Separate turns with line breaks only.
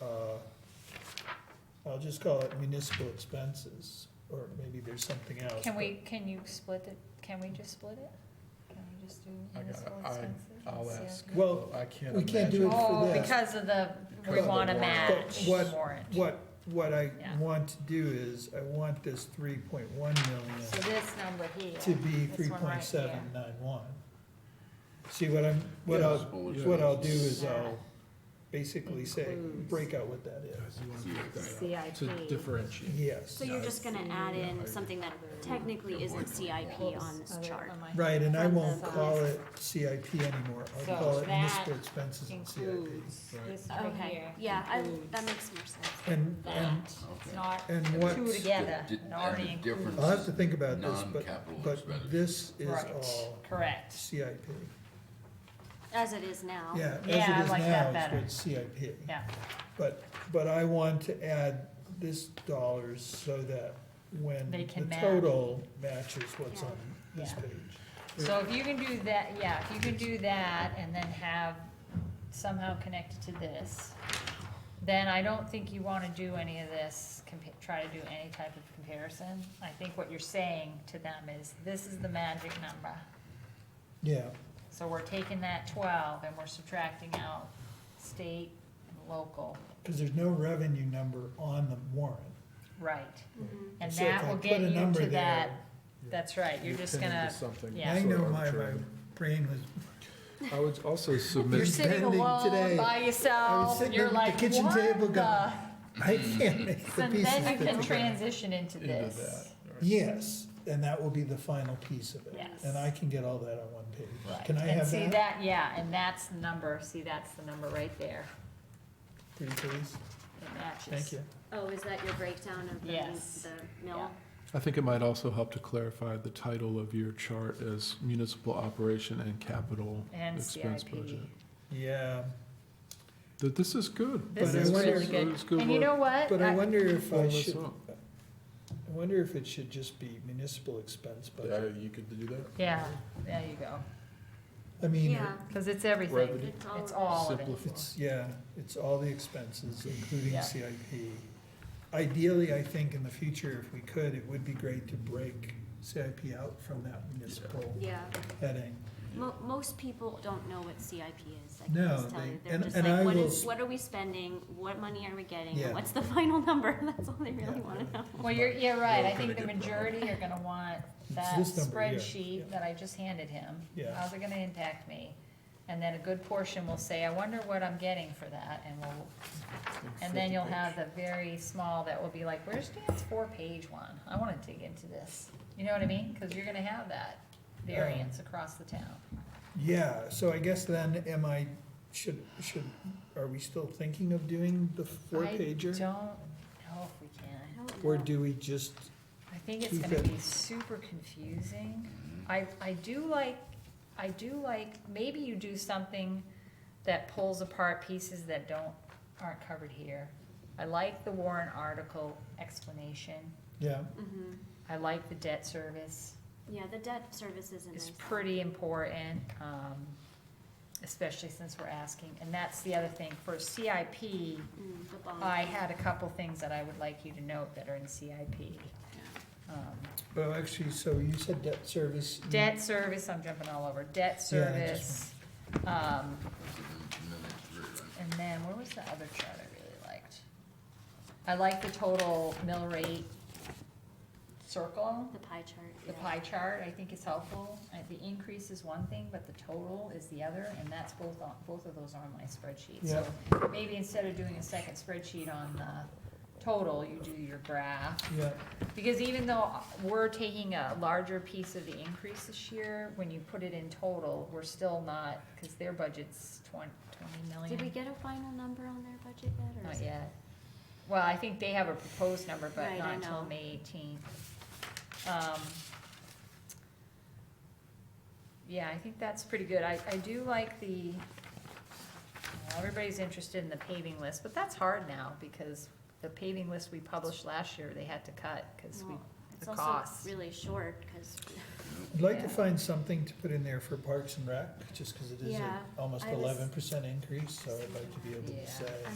uh, I'll just call it municipal expenses, or maybe there's something else.
Can
but-
we, can you split it, can we just split it? Can we just do
I
municipal
gotta- I-
expenses?
I'll
Yeah.
ask.
Well,
I can't
we can't do
imagine.
it for
Oh,
this.
because of the, we
Because of the
wanna
warrant.
match
But what-
warrant.
What, what I
Yeah.
want to do is, I want this three point one
So
million
this number here.
to be
this
three
one right
point seven
here.
nine one. See, what I'm, what I'll,
Yeah.
what I'll do is
Yeah.
I'll basically say,
Includes.
break out what that is.
You wanna break that up To
CIP.
differentiate.
Yes,
So you're just gonna add
Yeah.
in something that technically isn't CIP on this
Other-
chart.
on my-
right, and I
from the
won't
side.
call it CIP anymore,
So
I'll call it
that
municipal expenses and CIP.
Includes.
Right.
This right
Okay,
here,
yeah, I, that makes more sense.
And, and,
that, it's not
and
And
what,
two together,
The di-
it already
and the
includes.
I'll have to think about this, but,
Non-capital
but
expenditure.
this is
Right,
all
Correct,
CIP.
As it is now.
Yeah, as it
Oh. Yeah, I
is
like that
now,
better.
it's what's CIP.
yeah,
But, but I want to add this dollars so that when
They can
the
match.
total matches what's on this
Yeah.
page.
so if you can do that, yeah, if you can do that and then have somehow connected to this, then I don't think you wanna do any of this, compa- try to do any type of comparison. I think what you're saying to them is, this is the magic number,
Yeah,
so we're taking that twelve and we're subtracting out state and local,
because there's no revenue number on the warrant.
right?
Mhm.
And
So if
that
I
will
put
get
a
you
number
to
there,
that,
yeah.
that's right, you're just
pinning to
gonna,
something
yeah.
I
sort
know my,
of
my
arbitrary.
brain was,
I would also
you're
submit,
sitting
bending today.
alone by yourself,
sitting
you're
at the
like,
kitchen
what
table
the?
going, I can't make the
So
pieces
then you
fit
can
together.
transition into
into that.
this.
All right.
Yes, and that will be the final piece of it.
Yes.
And I can get all that on one page.
Right.
Can I
And
have
see
that?
yeah, and that's the number, see, that's the number right there,
Pretty please,
it matches.
thank you.
Oh, is that your breakdown of
Yes.
the, the mill?
I think it might also help to clarify the title of your chart as municipal operation and capital
And
expense
CIP.
budget.
Yeah,
Th- This is good.
This
But I
is
wonder-
really good,
It's good
and you
work.
know what?
but I
I-
wonder if
Pull
I
this
should,
up.
I wonder if it should just be municipal expense
Yeah,
budget.
you could do that.
Yeah, there you go,
I mean,
Yeah.
cause it's everything,
Revenue.
it's
of
all of it.
Simplify.
it's, yeah, it's all the expenses, including
Yeah.
CIP. Ideally, I think in the future, if we could, it would be great to break CIP out from that municipal
it. Yeah,
heading.
mo- most people don't know what CIP is, I
No,
can just tell
they-
you. They're
and-
just
and I
like, what
will
is,
s-
what are we spending, what money are we getting,
Yeah.
and what's the final number? That's all they
Yeah.
really wanna know.
Well, you're, you're right, I
We're
think the
gonna get
majority are gonna want
It's
that
this number here, yeah.
spreadsheet that I just handed him.
Yeah.
How's it gonna impact me? And then a good portion will say, I wonder what I'm getting for that, and we'll, and then you'll have the very small that will be like, where's Dan's four-page one? I wanna dig into this. You know what I mean? Cause you're gonna have that variance across the town.
Yeah, so I guess then, am I, should, should, are we still thinking of doing the four
I
pager?
don't know if we
I
can.
don't
Or
know.
do we just,
I think it's
Keep
gonna
it.
be super confusing.
Mm-hmm.
I, I do like, I do like, maybe you do something that pulls apart pieces that don't, aren't covered here. I like the warrant article explanation.
yeah,
Mhm.
I like the debt service.
Yeah, the debt service isn't
It's
nice.
pretty important, um, especially since we're asking. And that's the other thing. For CIP,
Mm, the bond.
I had a couple things that I would like you to note that are in CIP. Um,
well, actually, so you said debt service. you-
Debt service, I'm jumping all over, debt
Yeah, I
service, um,
Minutes, right.
and then where was the other chart I really liked? I like the total mill rate circle,
The pie chart.
the
yeah.
pie chart, I think is helpful. I- The increase is one thing, but the total is the other, and that's both on, both of those are on my spreadsheet. So maybe instead of doing a second spreadsheet on the total, you do your graph
Yeah,
Because even though we're taking a larger piece of the increase this year, when you put it in total, we're still not, because their budget's twenty, twenty
Did we
million.
get a final number on their budget yet, or?
Oh, Not
is it-
yet. Well, I think they have a proposed number, but
Right,
not
I
until
know.
May eighteenth. Um, yeah, I think that's pretty good. I, I do like the, well, everybody's interested in the paving list, but that's hard now, because the paving list we published last year, they had to cut, because we
Well, It's
the
also
cost.
really short, cause
I'd like
Yeah.
to find something to put in there for Parks and Rec, just because it is a-
Yeah,
almost
I was-
almost eleven percent increase, so I'd like to be able
Yeah.
to say.
I